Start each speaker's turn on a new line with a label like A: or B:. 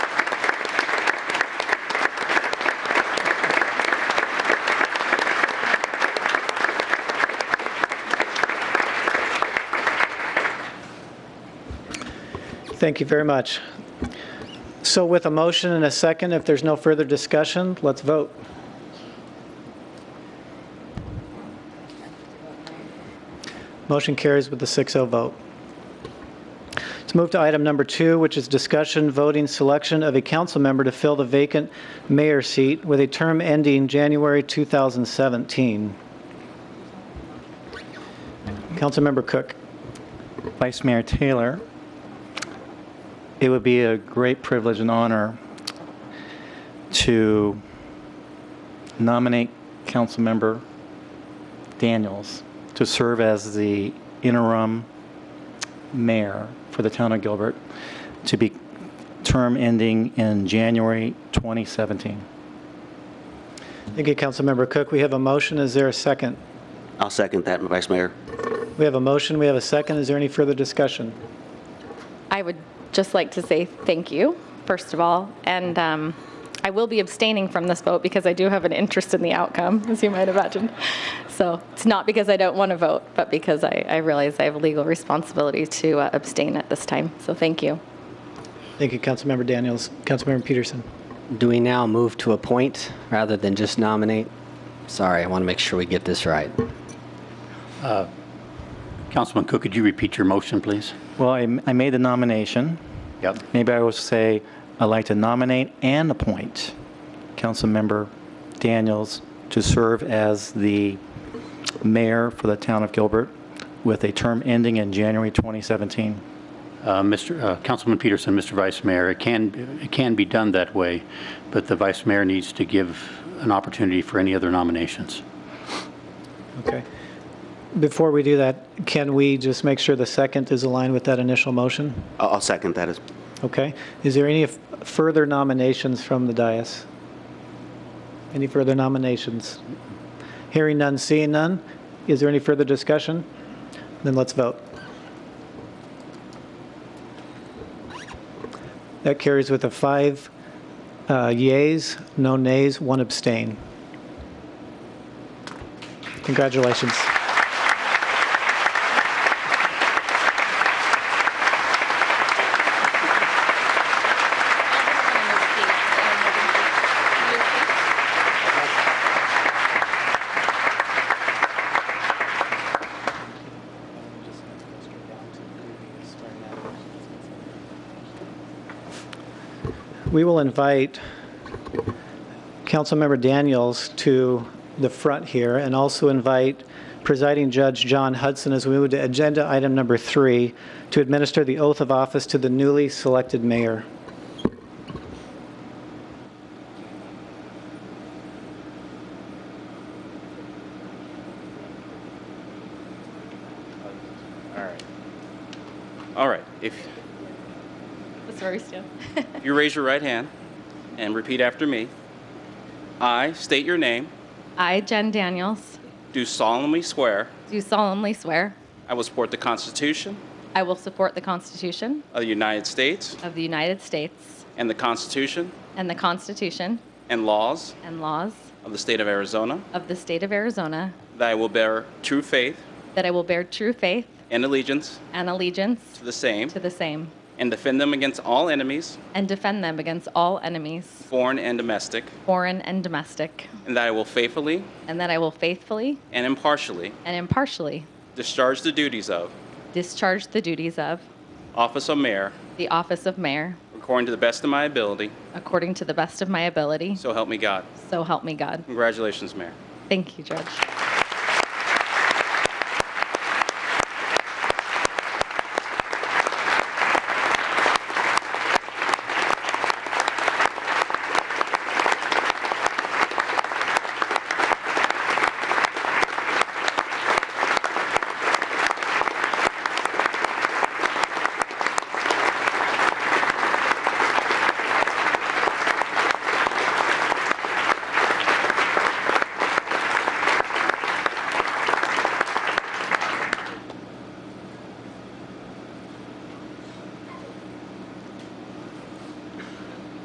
A: Thank you very much. So with a motion and a second, if there's no further discussion, let's vote. Motion carries with the 6-0 vote. Let's move to item number two, which is discussion, voting, selection of a council member to fill the vacant mayor seat with a term ending January 2017. Councilmember Cook.
B: Vice Mayor Taylor, it would be a great privilege and honor to nominate Councilmember Daniels to serve as the interim mayor for the town of Gilbert, to be term ending in January 2017.
A: Thank you, Councilmember Cook. We have a motion. Is there a second?
C: I'll second that, Vice Mayor.
A: We have a motion, we have a second. Is there any further discussion?
D: I would just like to say thank you, first of all, and um, I will be abstaining from this vote because I do have an interest in the outcome, as you might imagine. So it's not because I don't want to vote, but because I I realize I have a legal responsibility to uh, abstain at this time. So thank you.
A: Thank you, Councilmember Daniels. Councilmember Peterson.
E: Do we now move to appoint rather than just nominate? Sorry, I want to make sure we get this right.
F: Councilman Cook, could you repeat your motion, please?
B: Well, I I made the nomination.
F: Yep.
B: Maybe I will say, I'd like to nominate and appoint Councilmember Daniels to serve as the mayor for the town of Gilbert with a term ending in January 2017.
F: Uh, Mr. uh, Councilman Peterson, Mr. Vice Mayor, it can, it can be done that way, but the Vice Mayor needs to give an opportunity for any other nominations.
A: Okay. Before we do that, can we just make sure the second is aligned with that initial motion?
C: I'll I'll second that. as-
A: Okay. Is there any f- further nominations from the dais? Any further nominations? Hearing none, seeing none. Is there any further discussion? Then let's vote. That carries with a five uh, yeas, no nays, one abstain. Congratulations. We will invite Councilmember Daniels to the front here and also invite Presiding Judge John Hudson as we move to agenda item number three to administer the oath of office to the newly selected mayor.
G: All right. All right. If
D: That's where we stand.
G: you raise your right hand and repeat after me, I state your name,
D: I, Jen Daniels,
G: do solemnly swear
D: do solemnly swear
G: I will support the Constitution
D: I will support the Constitution
G: of the United States
D: of the United States
G: and the Constitution
D: and the Constitution
G: and laws
D: and laws
G: of the state of Arizona,
D: of the state of Arizona,
G: that I will bear true faith
D: that I will bear true faith
G: and allegiance
D: and allegiance
G: to the same
D: to the same
G: and defend them against all enemies,
D: and defend them against all enemies,
G: foreign and domestic,
D: foreign and domestic,
G: and that I will faithfully
D: and that I will faithfully
G: and impartially
D: and impartially
G: discharge the duties of
D: discharge the duties of
G: office of mayor
D: the office of mayor
G: according to the best of my ability,
D: according to the best of my ability.
G: so help me God.
D: So help me God.
G: Congratulations, Mayor.
D: Thank you, Judge.